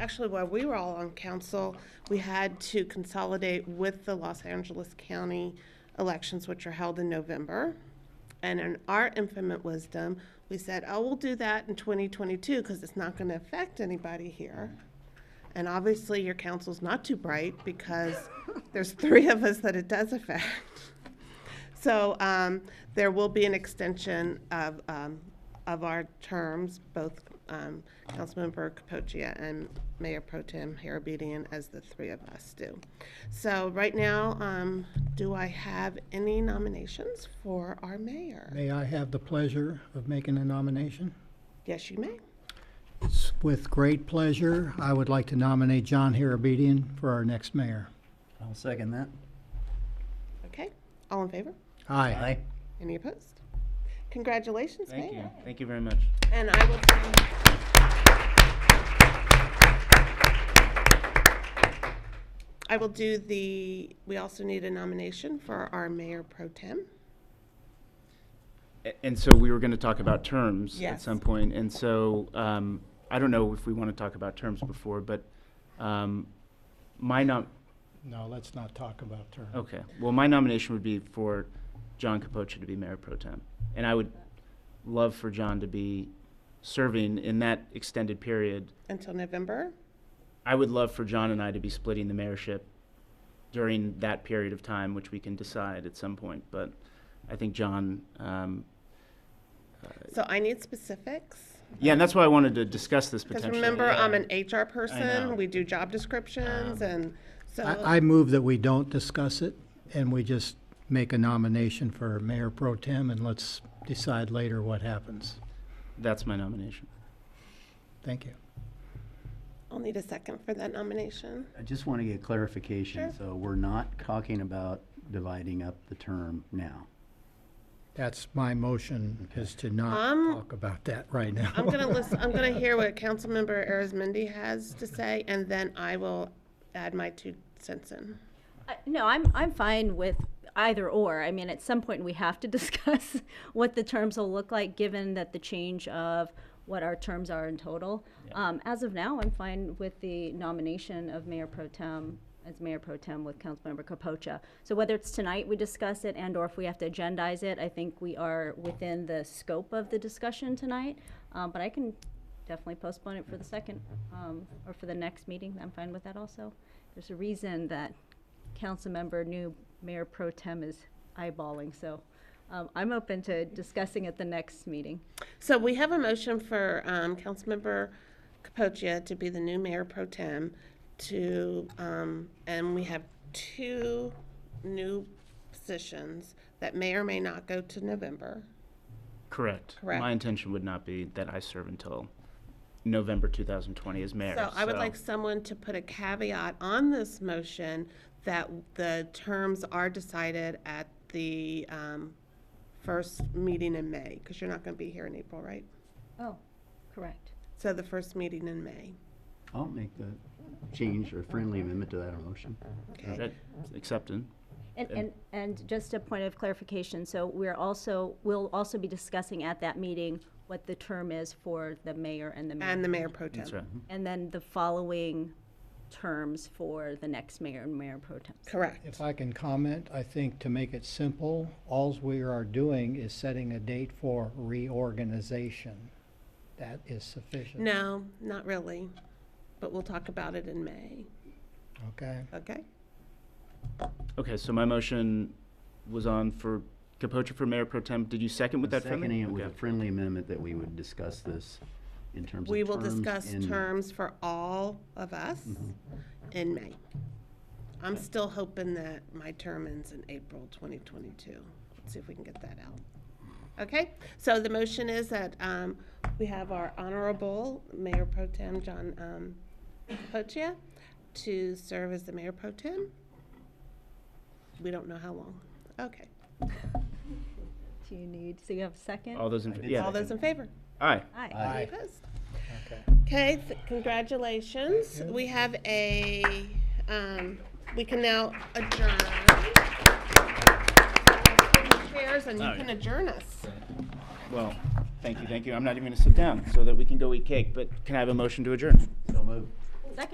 actually, while we were all on council, we had to consolidate with the Los Angeles County elections, which are held in November. And in our infinite wisdom, we said, oh, we'll do that in 2022 because it's not going to affect anybody here. And obviously, your council's not too bright because there's three of us that it does affect. So um, there will be an extension of, um, of our terms, both um, Councilmember Capocia and Mayor Pro Tem Harabedian, as the three of us do. So right now, um, do I have any nominations for our mayor? May I have the pleasure of making a nomination? Yes, you may. It's with great pleasure, I would like to nominate John Harabedian for our next mayor. I'll second that. Okay, all in favor? Aye. Any opposed? Congratulations, Mayor. Thank you. Thank you very much. And I will send. I will do the, we also need a nomination for our mayor pro tem. A- And so we were going to talk about terms at Yes. some point, and so um, I don't know if we want to talk about terms before, but um, my nom, No, let's not talk about term. okay, well, my nomination would be for John Capocha to be mayor pro tem. And I would love for John to be serving in that extended period. until November. I would love for John and I to be splitting the mayorship during that period of time, which we can decide at some point, but I think John um, So I need specifics. Yeah, and that's why I wanted to discuss this Because potentially. remember, I'm yeah. an HR person. know. Um, We do job descriptions and so, I, I move that we don't discuss it, and we just make a nomination for Mayor Pro Tem, and let's decide later what happens. That's my nomination. Thank you. I'll need a second for that nomination. I just want to get clarification. Sure. So we're not talking about dividing up the term now. That's my motion, is to not Um, talk about that right now. I'm gonna listen, I'm gonna hear what Councilmember Arizmendi has to say, and then I will add my two cents in. Uh, No, I'm, I'm fine with either or. I mean, at some point, we have to discuss what the terms will look like, given that the change of what our terms are in total. Um, as of now, I'm fine with the nomination of Mayor Pro Tem as Mayor Pro Tem with Councilmember Capocha. So whether it's tonight we discuss it and/or if we have to agendize it, I think we are within the scope of the discussion tonight. Um, but I can definitely postpone it for the second, um, or for the next meeting. I'm fine with that also. There's a reason that Councilmember new Mayor Pro Tem is eyeballing, so um, I'm open to discussing at the next meeting. So we have a motion for um, Councilmember Capocia to be the new mayor pro tem to, um, and we have two new positions that may or may not go to November. Correct. Correct. My intention would not be that I serve until November 2020 as mayor. So I would like someone to put a caveat on this motion that the terms are decided at the um, first meeting in May, because you're not going to be here in April, right? Oh, correct. So the first meeting in May. I'll make the change or friendly amendment to that motion. That- Accepted. And, and, and just a point of clarification, so we're also, we'll also be discussing at that meeting what the term is for the mayor and the And mayor. the mayor pro tem. That's right. Mm-hmm. And then the following terms for the next mayor and mayor pro tem. Correct. If I can comment, I think to make it simple, alls we are doing is setting a date for reorganization. That is sufficient. No, not really, but we'll talk about it in May, Okay, okay? Okay, so my motion was on for Capocha for mayor pro tem. Did you second with that? friendly? Seconding it with a Okay. friendly amendment that we would discuss this in terms of We will terms discuss and- terms for all of us in May. I'm still hoping that my term ends in April 2022. Let's see if we can get that out. Okay, so the motion is that um, we have our honorable Mayor Pro Tem John um, Pochia to serve as the Mayor Pro Tem. We don't know how long. Okay, Do you need, so you have a second? All those in, I fa- did yeah. all those in favor? Aye. Aye. Any Aye. opposed? okay. Okay, th- congratulations. We have a, um, we can now adjourn. Chairs and you Oh, can adjourn us. Well, thank you, thank you. I'm not even going to sit down so that we can go eat cake, but can I have a motion to adjourn? So moved.